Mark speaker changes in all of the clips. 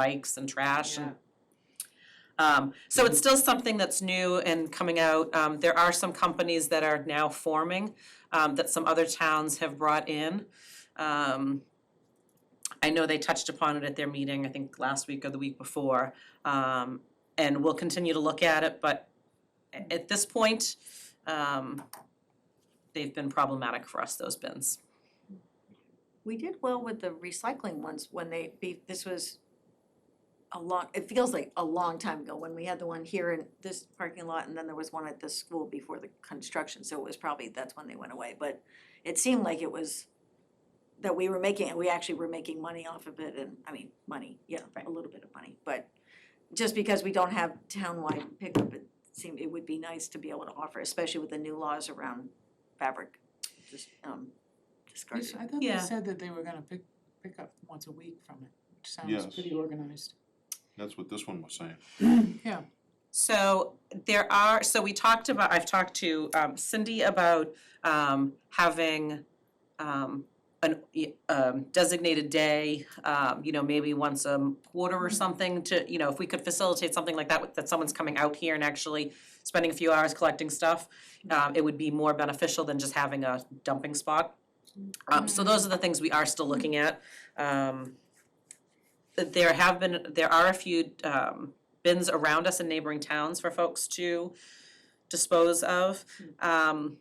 Speaker 1: bikes and trash and
Speaker 2: Yeah.
Speaker 1: um, so it's still something that's new and coming out. Um, there are some companies that are now forming, um, that some other towns have brought in. Um, I know they touched upon it at their meeting, I think last week or the week before. Um, and we'll continue to look at it, but a- at this point, um, they've been problematic for us, those bins.
Speaker 3: We did well with the recycling ones when they, be- this was a long, it feels like a long time ago when we had the one here in this parking lot and then there was one at the school before the construction, so it was probably, that's when they went away, but it seemed like it was that we were making, we actually were making money off of it and, I mean, money, yeah, a little bit of money, but just because we don't have townwide pickup, it seemed, it would be nice to be able to offer, especially with the new laws around fabric, just, um,
Speaker 2: I
Speaker 3: discarded.
Speaker 2: s- I thought
Speaker 1: Yeah.
Speaker 2: they said that they were gonna pick, pick up once a week from it, which sounds
Speaker 4: Yes.
Speaker 2: pretty organized.
Speaker 4: That's what this one was saying.
Speaker 2: Yeah,
Speaker 1: So there are, so we talked about, I've talked to um, Cindy about um, having um, an um, designated day, um, you know, maybe once a quarter or something to, you know, if we could facilitate something like that, with- that someone's coming out here and actually spending a few hours collecting stuff, um, it would be more beneficial than just having a dumping spot. Um, so those are the things we are still looking at. Um, th- there have been, there are a few um, bins around us in neighboring towns for folks to dispose of. Um,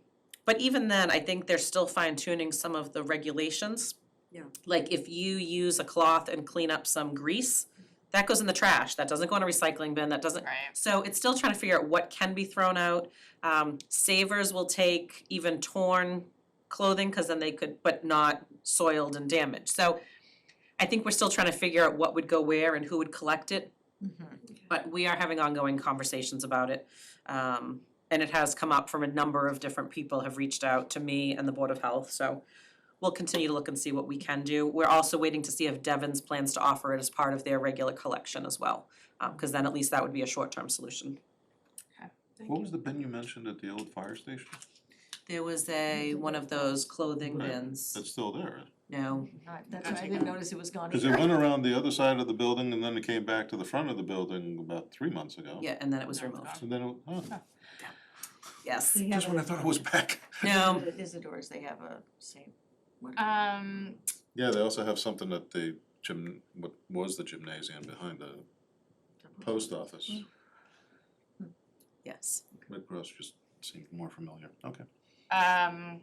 Speaker 1: but even then, I think they're still fine tuning some of the regulations.
Speaker 3: Yeah.
Speaker 1: Like if you use a cloth and clean up some grease, that goes in the trash, that doesn't go in a recycling bin, that doesn't. So it's still trying to figure out what can be thrown out. Um, savers will take even torn clothing, cause then they could, but not soiled and damaged, so. I think we're still trying to figure out what would go where and who would collect it, but we are having ongoing conversations about it. Um, and it has come up from a number of different people have reached out to me and the Board of Health, so we'll continue to look and see what we can do. We're also waiting to see if Devon's plans to offer it as part of their regular collection as well, um, cause then at least that would be a short-term solution.
Speaker 4: What was the bin you mentioned at the old fire station?
Speaker 1: There was a, one of those clothing
Speaker 4: Right.
Speaker 1: bins,
Speaker 4: It's still there,
Speaker 1: no,
Speaker 3: Not- That's why I didn't notice it was gone
Speaker 4: because
Speaker 3: either.
Speaker 4: it went around the other side of the building and then it came back to the front of the building about three months ago.
Speaker 1: yeah, and then it was
Speaker 2: No, it's
Speaker 1: removed,
Speaker 2: gone.
Speaker 4: So then, it- oh,
Speaker 1: yes,
Speaker 3: They
Speaker 4: just
Speaker 3: have
Speaker 4: when I thought it was back.
Speaker 1: no,
Speaker 3: a, Isidore's, they have a same one.
Speaker 5: Uh,
Speaker 6: Um,
Speaker 4: Yeah, they also have something at the gym, what was the gymnasium behind the post office.
Speaker 1: yes.
Speaker 4: Red Cross just seemed more familiar. Okay.
Speaker 6: um,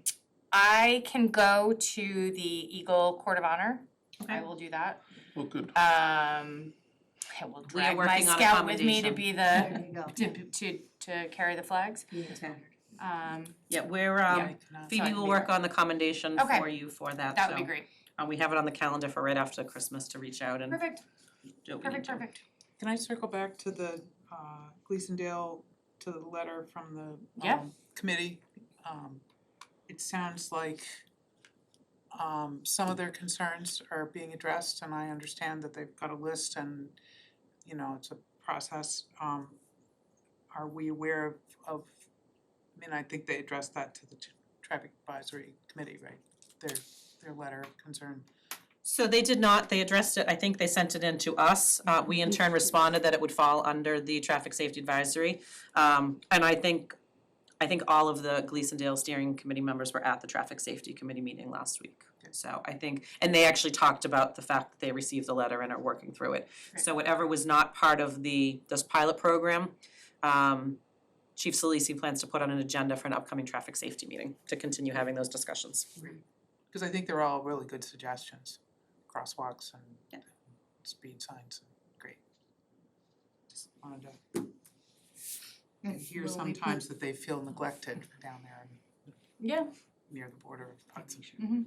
Speaker 6: I can go to the Eagle Court of Honor. I will do that.
Speaker 4: Well, good.
Speaker 6: Um, I will
Speaker 1: We are
Speaker 6: drag my
Speaker 1: working on
Speaker 6: scout with me to
Speaker 1: accommodation.
Speaker 6: be
Speaker 3: There
Speaker 6: the,
Speaker 3: you go.
Speaker 6: to, to, to carry the flags. Um,
Speaker 1: Yeah, we're,
Speaker 2: yeah,
Speaker 1: um,
Speaker 2: I cannot-
Speaker 6: I
Speaker 1: Phoebe
Speaker 6: can
Speaker 1: will
Speaker 6: be
Speaker 1: work
Speaker 6: there.
Speaker 1: on the commendation
Speaker 6: Okay.
Speaker 1: for you for that,
Speaker 6: that would
Speaker 1: so,
Speaker 6: be great.
Speaker 1: uh, we have it on the calendar for right after Christmas to reach out and
Speaker 6: Perfect,
Speaker 1: do what we need
Speaker 6: perfect,
Speaker 1: to.
Speaker 6: perfect.
Speaker 5: Can I circle back to the uh Gleasondale, to the letter from the
Speaker 6: Yeah.
Speaker 5: um committee? Um it sounds like um some of their concerns are being addressed and I understand that they've got a list and you know, it's a process. Um are we aware of of, I mean, I think they addressed that to the t- traffic advisory committee, right? Their their letter of concern.
Speaker 1: So they did not, they addressed it, I think they sent it in to us, uh, we in turn responded that it would fall under the traffic safety advisory. Um, and I think, I think all of the Gleasondale steering committee members were at the traffic safety committee meeting last week. So I think, and they actually talked about the fact that they received the letter and are working through it. So whatever was not part of the, this pilot program, um, Chief Solisi plans to put on an agenda for an upcoming traffic safety meeting to continue having those discussions.
Speaker 5: Cause I think they're all really good suggestions, crosswalks
Speaker 1: Yeah.
Speaker 5: and speed signs, great. Just wanted to. I hear
Speaker 3: Well, we put-
Speaker 5: sometimes that they feel neglected down there
Speaker 6: Yeah,
Speaker 5: near the border of Hudson.
Speaker 3: Mm.
Speaker 6: Mm-hmm.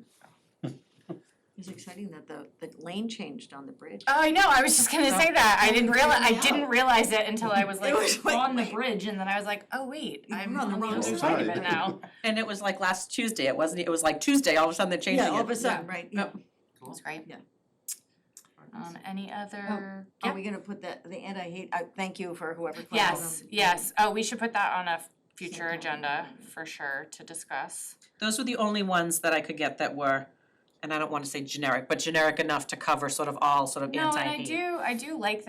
Speaker 3: It's exciting that the, the lane changed on the bridge.
Speaker 6: oh, I know, I was just gonna say that. I didn't realize, I didn't realize it until I was like
Speaker 3: was like,
Speaker 6: on the
Speaker 3: wait.
Speaker 6: bridge and then I was like, oh, wait,
Speaker 3: You're
Speaker 6: I'm
Speaker 3: on the
Speaker 6: on the
Speaker 3: wrong
Speaker 6: other
Speaker 4: side.
Speaker 6: side of it now.
Speaker 1: And it was like last Tuesday, it wasn't, it was like Tuesday, all of a sudden they're changing
Speaker 3: Yeah,
Speaker 1: it.
Speaker 3: all of a sudden, right, yeah.
Speaker 1: Yep.
Speaker 6: That's great.
Speaker 3: Yeah.
Speaker 6: Um, any other?
Speaker 3: Are we gonna put that, the anti-hate, I, thank you for whoever put that on.
Speaker 6: Yes, yes, oh, we should put that on a future agenda for sure to discuss.
Speaker 1: Those were the only ones that I could get that were and I don't wanna say generic, but generic enough to cover sort of all sort of anti-hate.
Speaker 6: No, and I do, I do like